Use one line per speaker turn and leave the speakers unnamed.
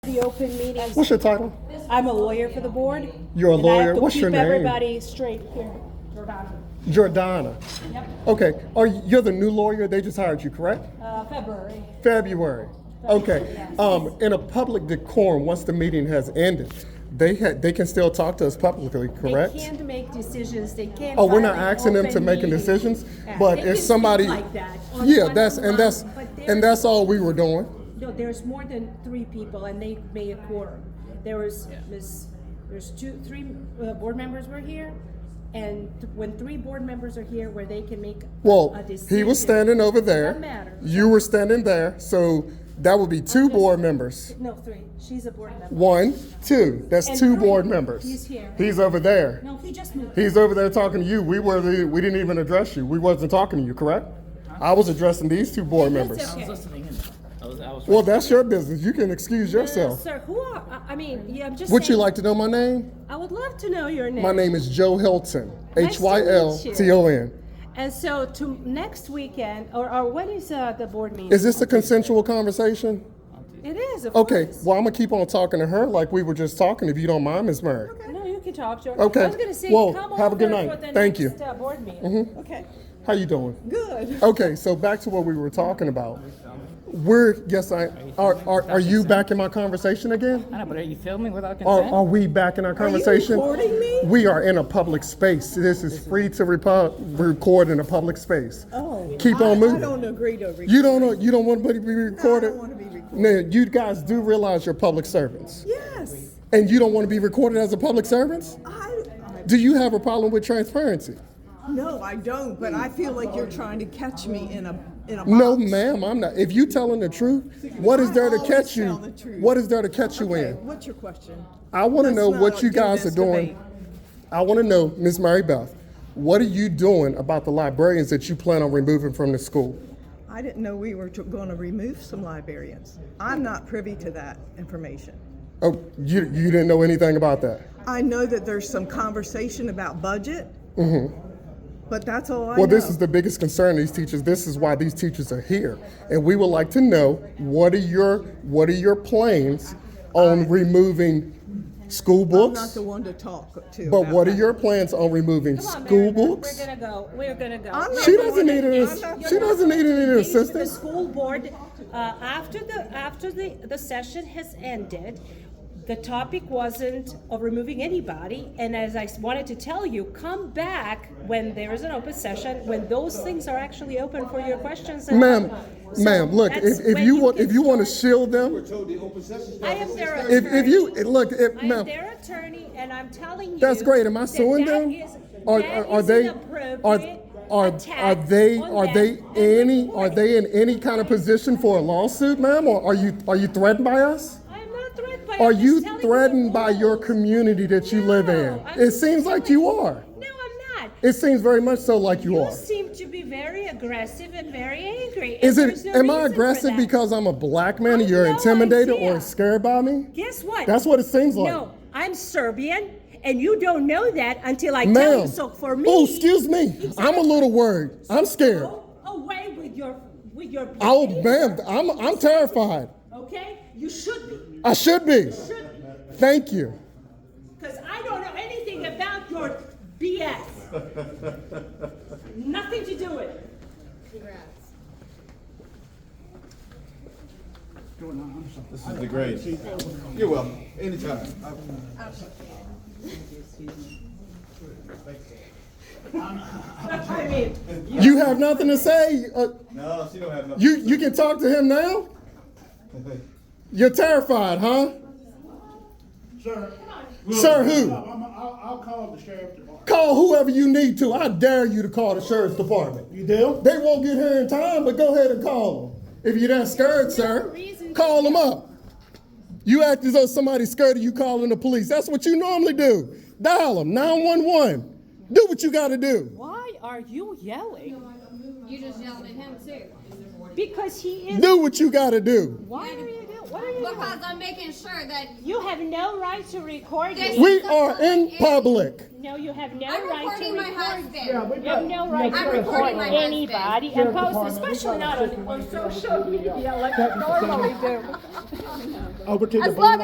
The open meetings.
What's your title?
I'm a lawyer for the board.
You're a
and I have
lawyer.
to
What's your
keep
name?
Everybody straight here.
Jordana. Okay. Are you, you're the new lawyer? They just hired you, correct?
Uh, February.
February. Okay. Um, in a public decorum, once the meeting has ended, they had they can still talk to us publicly, correct?
They can't make decisions, they can't.
Oh, we're not
violate
asking them to
open
make
meeting.
decisions,
Yeah.
but
They
if
can speak
somebody-
like that on
Yeah,
one
that's and that's
line, but
and
there's-
that's all we were doing.
No, there's more than three people and they made a quorum. There was, Ms., there's two, three, uh, board members were here. And th- when three board members are here where they can make
Well,
a decision.
he was standing over
Doesn't
there.
matter.
You were standing there, so that would be two board members.
No, three, she's a board member.
One, two. That's
And
two
three,
board members.
he's here.
He's over there.
No, he just moved.
He's over there talking to you. We were the, we didn't even address you. We wasn't talking to you, correct? I was addressing these two board members.
okay.
I was listening in. I was, I was
Well, that's your business. You can excuse yourself.
Sir, who are, I- I mean, yeah, I'm just
Would you
saying,
like to know my name?
I would love to know your name.
My name is Joe Hilton.
Nice
H
to
Y L
meet you.
T O N.
And so to next weekend, or, or when is uh, the board meeting?
Is this a consensual conversation?
It is, of
Okay,
course.
well, I'm gonna keep on talking to her like we were just talking, if you don't mind, Ms. Murray.
No, you can talk, George.
Okay.
I was gonna say,
Well,
come
have a good
over
night.
for the
Thank
next,
you. Mm-hmm.
uh, board meeting.
Okay.
How you doing?
Good.
Okay, so back to what we were talking about. We're, yes, I, are, are, are you back in my conversation again?
I know, but are you filming without
Are,
consent?
are we back in our conversation?
recording me?
We are in a public space. This is free to repo- record in a public space.
Oh.
Keep
I-
on
I don't
moving.
agree to agree.
You don't know, you don't want to be recorded?
wanna be recorded.
Now, you guys do realize you're public servants.
Yes.
And you don't want to be recorded as a public servant?
I,
Do you have a problem with transparency?
no, I don't, but I feel like you're trying to catch me in a, in a box.
No, ma'am, I'm not. If you telling the truth, what is there to
I always
catch you?
tell the truth.
What is there to catch you
Okay,
in?
what's your question?
I want to
Let's
know
not
what you
do
guys are
this
doing.
debate.
I want to know, Miss Mary Beth, what are you doing about the librarians that you plan on removing from the school?
I didn't know we were going to remove some librarians. I'm not privy to that information.
Oh, you you didn't know anything about that.
I know that there's some conversation about budget. But that's all I know.
Mm-hmm. Well, this is the biggest concern of these teachers. This is why these teachers are here, and we would like to know what are your what are your plans
Uh,
on removing school
I'm not
books?
the one to talk to.
But
about
what are
that.
your plans on removing
Come on,
school
Meredith,
books?
We're gonna go. We're gonna go.
I'm not
She doesn't need
You're
an.
not-
She doesn't need any
Engage with The
assistance.
school board, uh, after the, after the, the session has ended, the topic wasn't of removing anybody, and as I s- wanted to tell you, come back when there is an open session, when those things are actually open for your questions. and-
Ma'am,
So
ma'am, look,
that's
if, if
when
you want,
can
if you want to
start-
shield them,
I am their attorney.
if, if you, look, if,
I'm
ma'am,
their attorney, and I'm telling you.
that's great. Am I
that
suing
that
them?
is-
Are,
that
are are
is an
they, are,
appropriate
are, are
attack
they,
on them
are they
and
any, are
reporting.
they in any kind of position for a lawsuit, ma'am? Or are you, are you threatened by us?
I am not threatened by.
Are
I'm just
you
telling
threatened
the
by your
rules.
community that you live in?
No, I'm
It
just
seems like
telling
you are.
No, I'm not.
It seems very much so like you
You
are.
seem to be very aggressive and very angry. and
Is
there's
it,
no
am I
reason for
aggressive
that.
because I'm a black man
I
and you're
have no
intimidated or
idea.
scared by me?
Guess what?
That's what it seems like.
No, I'm Serbian, and you don't know that until I tell
Ma'am.
you. So for me,
Oh, excuse me. I'm a little worried. I'm scared.
Go away with your with your.
Oh,
behavior,
ma'am, I'm, I'm terrified.
Okay, you should be.
I should be.
Should be.
Thank you.
Because I don't know anything about your BS. Nothing to do with it.
This is the great. You're welcome. Anytime.
I mean,
You have nothing to say? Uh,
No, she don't have nothing.
you, you can talk to him now? You're terrified, huh?
Sir.
Sir, who?
I'm- I'll, I'll call the sheriff tomorrow.
Call whoever you need to. I dare you to call the sheriff's department.
You do?
They won't get here in time, but go ahead and call them. If you're that scared, sir, call them up. You act as though somebody's scared of you calling the police. That's what you normally do. Dial them, 911. Do what you got to do.
why are you yelling?
You just yelled at him too.
Because he is.
Do what you got to do.
Why are you yelling? What are you doing?
Because I'm making sure that
You have no right to record
This-
me.
We are in public.
No, you have no
I'm
right to
recording my
record.
husband.
You have no right
I'm
to
recording
record
my
anybody and post, especially not on
social media like normally do. Over to the.
As long